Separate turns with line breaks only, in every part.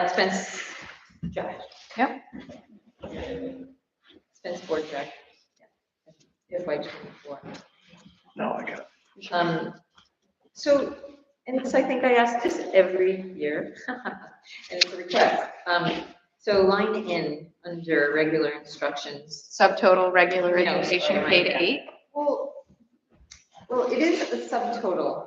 That's been s- Josh.
Yep.
It's been sport track. FY twenty-four.
No, I got it.
Um, so, and it's, I think I ask this every year, and it's a request. Um, so line in under regular instructions.
Subtotal regular
No,
education
sorry.
K to eight.
Well, well, it is a subtotal,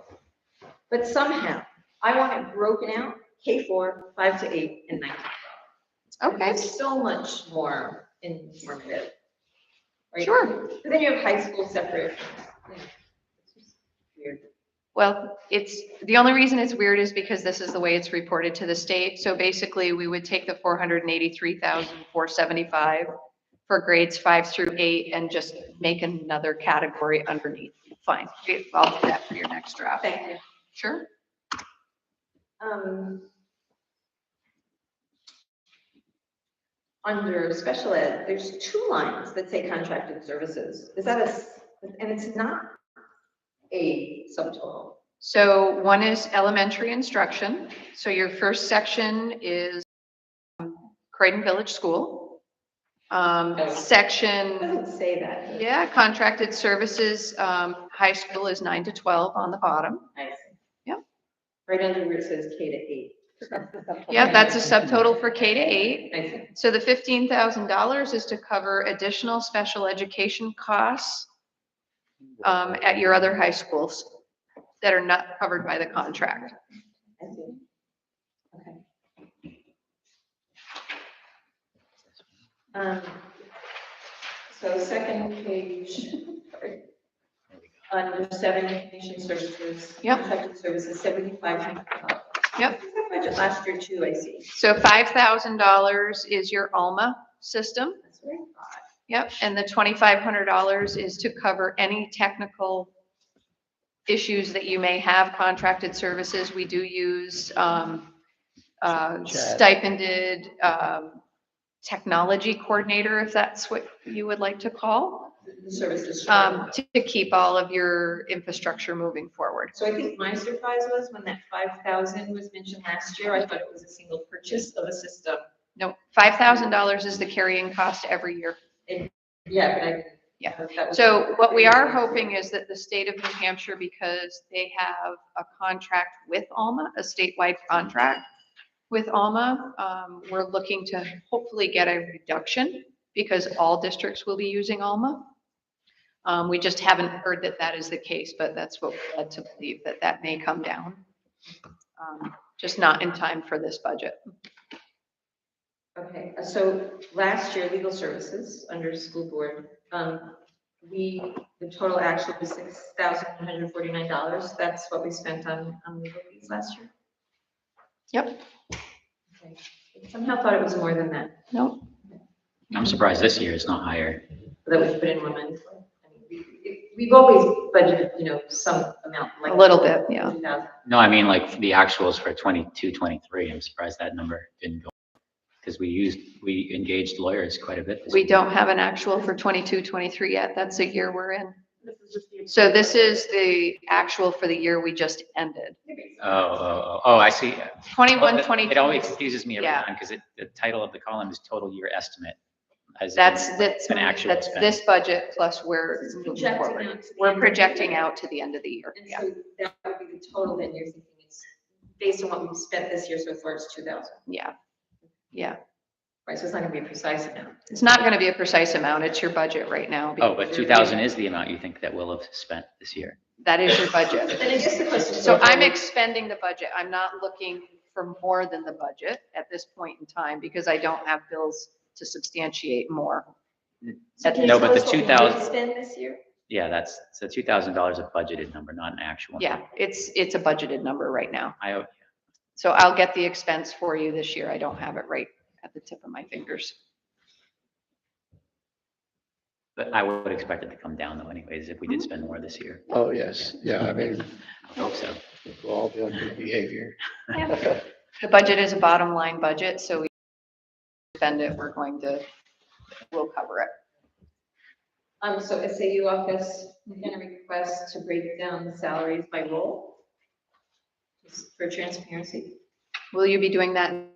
but somehow I want it broken out, K four, five to eight, and nine to And
Okay,
it's So much more informative. right?
sure.
But then you have high school separate. yeah. It's just Weird.
Well, it's, the only reason it's weird is because this is the way it's reported to the state. So basically, we would take the four hundred and eighty-three thousand, four seventy-five for grades five through eight and just make another category underneath. Fine, I'll do that for your next draft.
Thank you.
Sure.
Um, Under special ed, there's two lines that say contracted services. Is that a, s- and it's not a subtotal.
So one is elementary instruction. So your first section is um, Croydon Village School. Um,
Oh. It
section
doesn't say that.
Yeah, contracted services, um, high school is nine to twelve on the bottom.
I see.
Yep.
Right under where it says K to eight. 'Cause that's the subtotal.
Yeah, that's a subtotal for K to eight.
I see.
So the fifteen thousand dollars is to cover additional special education costs um, at your other high schools that are not covered by the contract.
I see. Okay. Um, So second page, sorry. under seven information services.
Yep.
Contracted services, seventy-five hundred dollars.
Yep.
Budget last year too, I see.
So five thousand dollars is your Alma system.
That's what I thought.
Yep, and the twenty-five hundred dollars is to cover any technical issues that you may have, contracted services, we do use, um, uh, stipended, um, technology coordinator, if that's what you would like to call,
The services.
um, to, to keep all of your infrastructure moving forward.
So I think my surprise was when that five thousand was mentioned last year, I thought it was a single purchase of a system.
No, five thousand dollars is the carrying cost every year.
Yeah, but I.
Yeah.
that was-
So what we are hoping is that the state of New Hampshire, because they have a contract with Alma, a statewide contract with Alma, um, we're looking to hopefully get a reduction because all districts will be using Alma. Um, we just haven't heard that that is the case, but that's what we're led to believe, that that may come down. Um, Just not in time for this budget.
Okay, uh, so last year, legal services under school board, um, we, the total actual was six thousand one hundred forty-nine dollars. That's what we spent on, on legal fees last year.
Yep.
Okay. I Somehow thought it was more than that,
No,
I'm surprised this year is not higher.
that we put in women's. I mean, we- we- We've always budgeted, you know, some amount, like.
a little bit, yeah.
$2,000.
No, I mean like the actuals for 22, 23. I'm surprised that number didn't go. Because we used, we engaged lawyers quite a bit. this
We
year.
don't have an actual for 22, 23 yet. That's the year we're in. So this is the actual for the year we just ended.
Oh, oh, oh, oh, I see. Oh,
21,
that-
22.
It always confuses me every
Yeah.
time because it, the title of the column is total year estimate. as in
That's, that's,
An actual
that's
spend.
this budget plus we're
This is
moving
projecting out
forward.
to the
We're
end of the
projecting
year.
out to the end of the year.
And
Yeah.
so that would be the total then you're thinking it's based on what we've spent this year so far, it's two thousand,
Yeah. Yeah.
right? So it's not gonna be a precise amount.
It's not going to be a precise amount. It's your budget right now. because
Oh, but
you're-
2,000 is the amount you think that we'll have spent this year.
That is your budget.
But Then I guess the question. is-
So I'm expending the budget. I'm not looking for more than the budget at this point in time because I don't have bills to substantiate more.
So can you
No, but
tell
the
us what we did
2,000
Spend this year?
Yeah, that's, so $2,000 a budgeted number, not an actual.
Yeah, it's, it's a budgeted number right now.
I,
So I'll get the expense for you this year. I don't have it right at the tip of my fingers.
but I would expect it to come down though anyways, if we
Mm-hmm.
did spend more this year.
Oh, yes, yeah, I mean,
I hope so.
we'll all be on good behavior.
The budget is a bottom line budget, so we spend it, we're going to, we'll cover it.
Um, so SAU office, we're gonna request to break down the salaries by role just for transparency.
Will you be doing that in